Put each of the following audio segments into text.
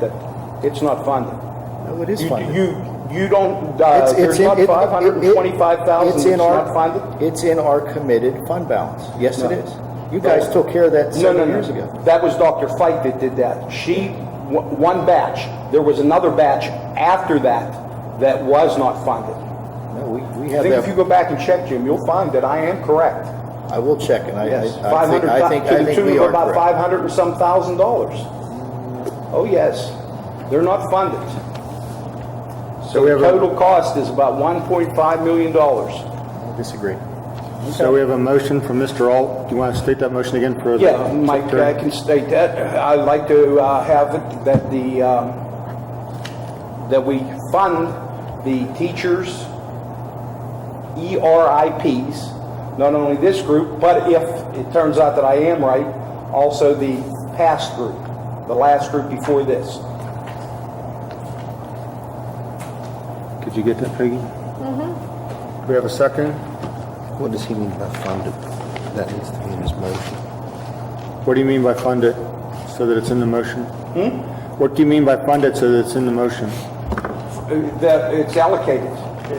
that it's not funded. No, it is You- funded. You, you don't, uh, there's not it- it- five hundred and twenty-five it- thousand it's that's in our- not funded? It's in our committed fund balance. Yes, it No. is. You guys took care of that No, no, seven no. years ago. That was Dr. Fike that did that. She, w- one batch, there was another batch after that that was not funded. No, we, we I have think if you that. go back and check, Jim, you'll find that I am correct. I will check and I, I- Yes, I five think, hundred, I think, I to the think tune we of are about correct. five hundred and some thousand dollars. Oh, yes, they're not funded. So So we the have a- total cost is about one point five million dollars. Disagree. So we have a motion from Mr. Alt. Do you want to state that motion again for the Yeah, Um, Mike, I secretary? can state that. I'd like to uh, have it that the, um, that we fund the teachers' E ERIPs, not only this group, but if it turns out that I am right, also the past group, the last group before this. Could you get that, Peggy? We have a second. What does he mean by funded? That needs to be in his motion. What do you mean by fund it so that it's in the motion? What do you mean by fund it so that it's in the motion? Uh, That it's allocated,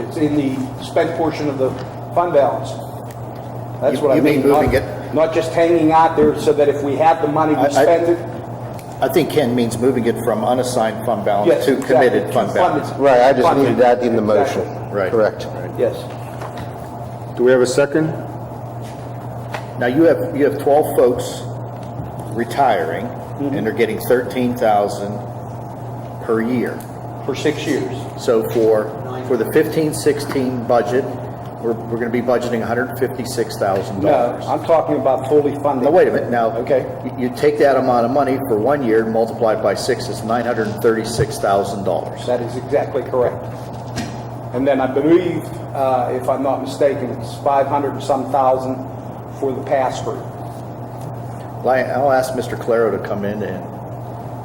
it's in the spent portion of the fund balance. That's You- what I you mean mean. not- moving it? Not just hanging out there so that if we have the money, I- we I- spend it. I think Ken means moving it from unassigned fund balance Yes, to exactly. committed fund balance. Funded. Right, I just Funded. needed that in the motion. Exactly. Right. Correct. Yes, Do we have a second? Now, you have, you have 12 folks retiring Mm-hmm. and they're getting 13,000 per year. for six years. So for, for the 15, 16 budget, we're, we're going to be budgeting $156,000. No, I'm talking about fully funded. Now, wait a minute, now. Okay. you- You take that amount of money for one year, multiply it by six, it's $936,000. That is exactly correct. And then I believe, uh, if I'm not mistaken, it's 500 and some thousand for the pass-through. Well, I- I'll ask Mr. Claro to come in and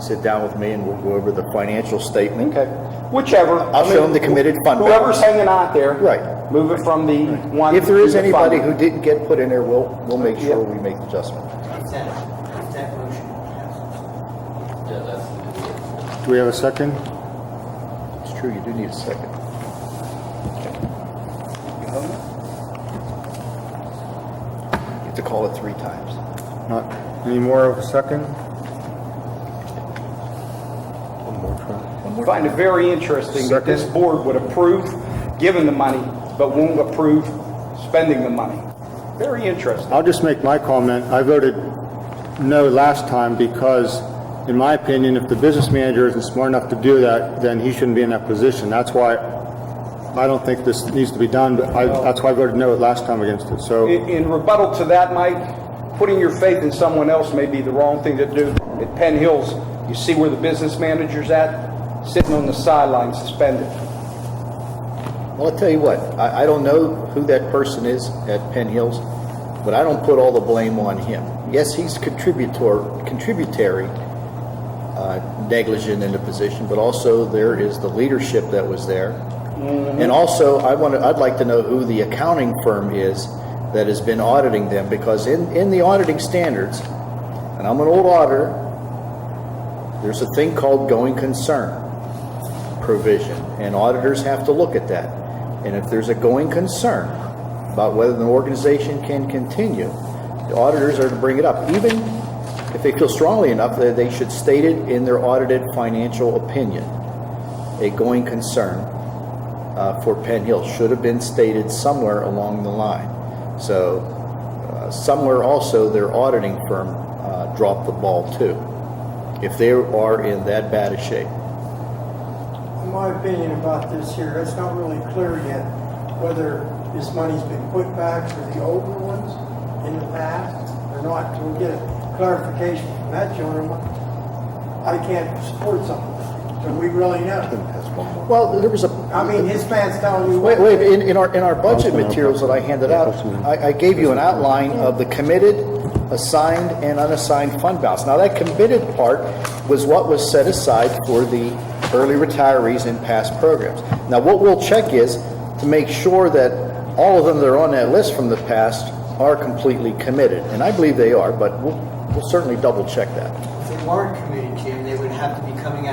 sit down with me and we'll go over the financial statement. Okay, whichever. I I'll mean, show 'em the committed fund Whoever's balance. hanging out there. Right. Move it from the one. If there is to the anybody fund. who didn't get put in there, we'll, we'll make Yeah. sure we make the adjustment. It's that, it's that motion. Do we have a second? It's true, you do need a second. You have to call it three times. Not any more of a second? I Find it very interesting that this Second. board would approve giving the money, but won't approve spending the money. Very interesting. I'll just make my comment. I voted no last time because, in my opinion, if the business manager isn't smart enough to do that, then he shouldn't be in that position. That's why I don't think this needs to be done, but I, that's why I voted no last time against it. So In in rebuttal to that, Mike, putting your faith in someone else may be the wrong thing to do. At Penn Hills, you see where the business manager's at, sitting on the sidelines suspended. Well, I'll tell you what, I, I don't know who that person is at Penn Hills, but I don't put all the blame on him. Yes, he's contributor, contributory uh, negligent in the position, but also there is the leadership that was there. And also, I want to, I'd like to know who the accounting firm is that has been auditing them, because in, in the auditing standards, and I'm an old auditor, there's a thing called going concern provision, and auditors have to look at that. And if there's a going concern about whether the organization can continue, the auditors are to bring it up. Even if they feel strongly enough, that they should state it in their audited financial opinion. A going concern uh, for Penn Hill should have been stated somewhere along the line. So uh, somewhere also, their auditing firm uh, dropped the ball too, if they are in that bad a shape. In my opinion about this here, it's not really clear yet whether this money's been put back for the older ones in the past or not. Till we get a clarification from that gentleman, I can't support something that we really know. Well, there was a. I mean, his man's telling you. Wait, wait, in, in our, in our budget materials that I handed out, I, I gave you an outline of the committed, assigned, and unassigned fund balance. Now, that committed part was what was set aside for the early retirees in past programs. Now, what we'll check is to make sure that all of them that are on that list from the past are completely committed, and I believe they are, but we'll, we'll certainly double check that. If they weren't committed, Jim, they would have to be